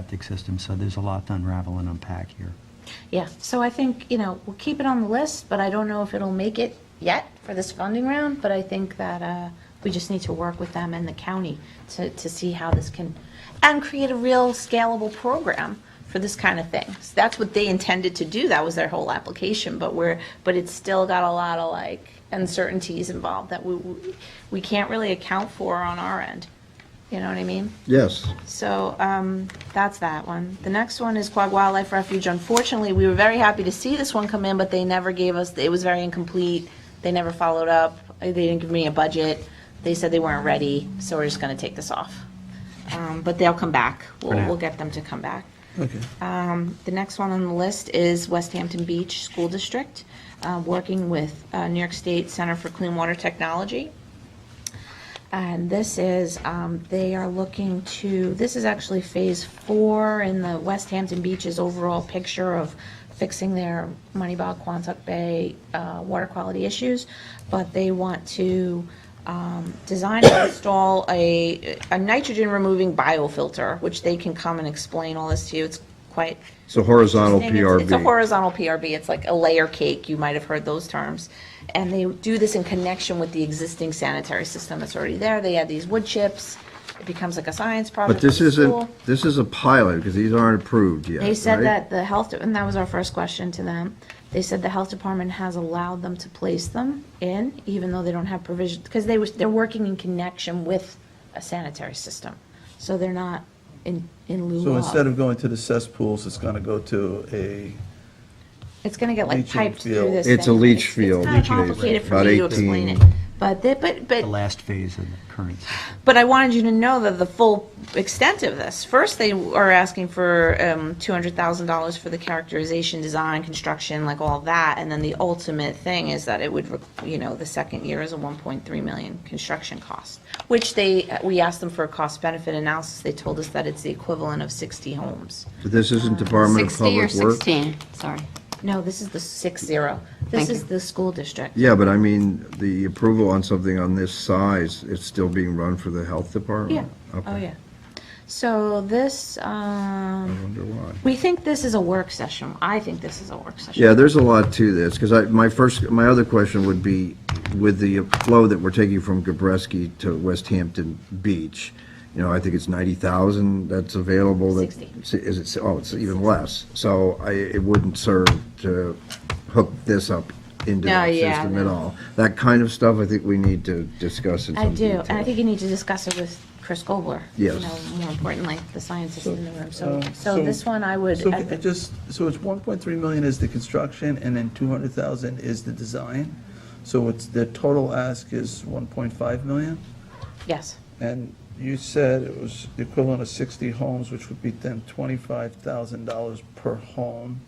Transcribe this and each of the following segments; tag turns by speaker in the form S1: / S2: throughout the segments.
S1: septic system, so there's a lot to unravel and unpack here.
S2: Yeah, so I think, you know, we'll keep it on the list, but I don't know if it'll make it yet for this funding round, but I think that uh, we just need to work with them and the county to, to see how this can, and create a real scalable program for this kind of thing. So That's what they intended to do, that was their whole application, but we're, but it's still got a lot of like uncertainties involved that we, we- we can't really account for on our end. You know what I mean?
S3: Yes.
S2: So um, that's that one. The next one is Quag Wildlife Refuge. Unfortunately, we were very happy to see this one come in, but they never gave us, it was very incomplete. They never followed up. They didn't give me a budget. They said they weren't ready, so we're just going to take this off. Um, But they'll come back. We'll,
S1: now.
S2: we'll get them to come back. Um,
S3: Okay.
S2: The next one on the list is West Hampton Beach School District, uh, working with uh, New York State Center for Clean Water Technology. And this is, um, they are looking to, this is actually phase four in the West Hampton Beach's overall picture of fixing their Moneyball Quantuck Bay uh, water quality issues. But they want to um, design and install a, a nitrogen removing biofilter, which they can come and explain all this to you. It's quite
S3: It's a horizontal
S2: thing. It's- It's a
S3: PRV.
S2: horizontal PRB. It's like a layer cake. You might have heard those terms. And they do this in connection with the existing sanitary system that's already there. They add these wood chips. It becomes like a science project.
S3: But
S2: for
S3: this
S2: the school.
S3: isn't, this is a pilot, because these aren't approved yet,
S2: They said
S3: right?
S2: that the health, and that was our first question to them. They said the health department has allowed them to place them in, even though they don't have provision, because they was, they're working in connection with a sanitary system. So they're not in, in lieu of.
S4: So instead of going to the cesspools, it's going to go to a,
S2: It's gonna get like
S4: Leaching
S2: piped through
S4: field.
S2: this.
S3: It's a
S2: thing.
S3: leach
S2: It's-
S3: field,
S2: It's
S3: leach
S2: kind
S3: field,
S2: of complicated for
S3: about
S2: me to explain
S3: 18.
S2: it, but they, but,
S1: The
S2: but,
S1: last phase of the current system.
S2: but I wanted you to know that the full extent of this. First, they are asking for, um, two hundred thousand dollars for the characterization, design, construction, like all that, and then the ultimate thing is that it would, re- you know, the second year is a one point three million construction cost, which they, we asked them for a cost benefit analysis, they told us that it's the equivalent of sixty homes.
S3: But This isn't Department of
S5: 60 or
S3: Public Works?
S5: 16, sorry.
S2: No, this is the six zero, this
S5: Thank you.
S2: is the school district.
S3: Yeah, but I mean, the approval on something on this size, it's still being run for the Health
S2: Yeah,
S3: Department? Okay.
S2: oh, yeah. So this,
S3: I
S2: um,
S3: wonder why.
S2: we think this is a work session. I think this is a work session.
S3: Yeah, there's a lot to this, because I, my first, my other question would be, with the flow that we're taking from Gabreski to West Hampton Beach, you know, I think it's 90,000 that's available. that-
S2: 60.
S3: si- Is it, si- oh, it's even less. So I, it wouldn't serve to hook this up into
S2: No,
S3: that
S2: yeah,
S3: system at
S2: no.
S3: all. That kind of stuff, I think we need to discuss in
S2: I
S3: some
S2: do,
S3: detail.
S2: and I think you need to discuss it with Chris Gobler. You
S3: Yes.
S2: know, more importantly, the scientist in the room. So,
S4: uh,
S2: so
S4: so-
S2: this one I would,
S4: so it just, so it's 1.3 million is the construction and then 200,000 is the design. So it's, the total ask is 1.5 million?
S2: yes,
S4: And you said it was the equivalent of 60 homes, which would be then $25,000 per home,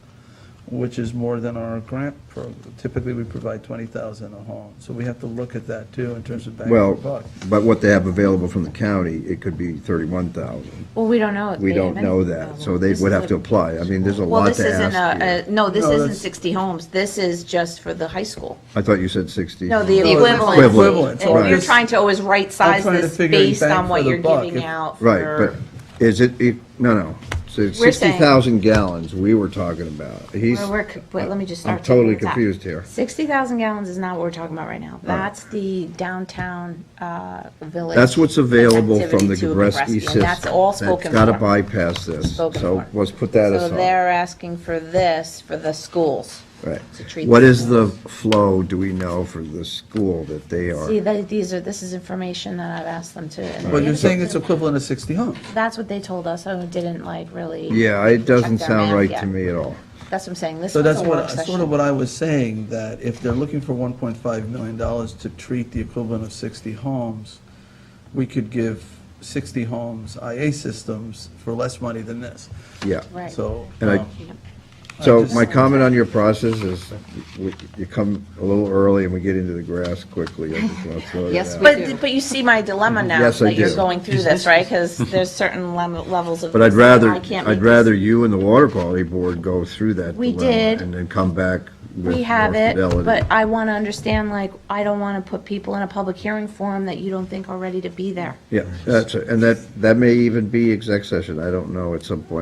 S4: which is more than our grant program. Typically, we provide 20,000 a home. So we have to look at that too in terms of bang for
S3: Well,
S4: buck.
S3: but what they have available from the county, it could be 31,000.
S2: well, we don't know. if
S3: We
S2: they Oh, have
S3: don't know
S2: any-
S3: that, so they would have to apply. I mean, there's a
S2: Well,
S3: lot
S2: this
S3: to
S2: isn't
S3: ask here.
S2: a, a- no, this
S4: No,
S2: isn't
S4: that's-
S2: 60 homes. This is just for the high school.
S3: I thought you said 60.
S2: No, the
S4: it's
S2: equivalent.
S3: equivalent,
S2: And You're
S3: right.
S2: trying to always right-size
S4: trying to
S2: this
S4: figure it
S2: based
S4: bang
S2: on what
S4: for the
S2: you're
S4: buck.
S2: giving
S4: If-
S2: out for.
S3: Right, but is it, e- no, no, so it's
S2: We're saying-
S3: 60,000 gallons we were talking about. He's,
S2: We're, we're, co- wait, let me just
S3: I'm
S2: start. taking
S3: totally
S2: the top.
S3: confused Oh. here.
S2: 60,000 gallons is not what we're talking about right now. That's the downtown uh, village.
S3: that's what's available from the
S2: connectivity to a
S3: Gabreski
S2: Gabreski,
S3: system.
S2: and that's all spoken
S3: That's got to
S2: for.
S3: bypass this,
S2: Spoken
S3: so
S2: for.
S3: let's put that
S2: So
S3: aside.
S2: they're asking for this, for the schools.
S3: Right.
S2: to treat
S3: What
S2: the
S3: is the
S2: schools.
S3: flow, do we know, for the school that they
S2: See,
S3: are?
S2: they- these are, this is information that I've asked them to. and
S4: But
S2: they-
S4: you're saying it's equivalent of 60 homes.
S2: That's what they told us, I didn't like really.
S3: Yeah, it doesn't
S2: their
S3: sound
S2: math
S3: right
S2: yet.
S3: to me at all.
S2: That's what I'm saying, this
S4: So
S2: was
S4: that's
S2: a
S4: what,
S2: work
S4: that's sort
S2: session.
S4: of what I was saying, that if they're looking for 1.5 million dollars to treat the equivalent of 60 homes, we could give 60 homes IA systems for less money than this.
S3: Yeah.
S2: Right.
S4: So.
S3: And I-
S4: um,
S3: So
S4: just-
S3: my comment on your process is, we- you come a little early and we get into the grass quickly. I just want to throw that
S5: Yes,
S3: out.
S5: we
S2: But, but you see my dilemma now,
S3: Yes, I
S2: that you're
S3: do.
S2: going through this, right? Because there's certain level- levels of.
S3: But I'd
S2: this that
S3: rather,
S2: I can't make
S3: I'd
S2: this-
S3: rather you and the Water Quality Board go through that
S2: We
S3: dilemma
S2: did.
S3: And then come back with
S2: We
S3: more
S2: have it,
S3: fidelity.
S2: but I want to understand, like, I don't want to put people in a public hearing forum that you don't think are ready to be there.
S3: Yeah, that's, it. and that, that may even be exec session, I don't know at some point.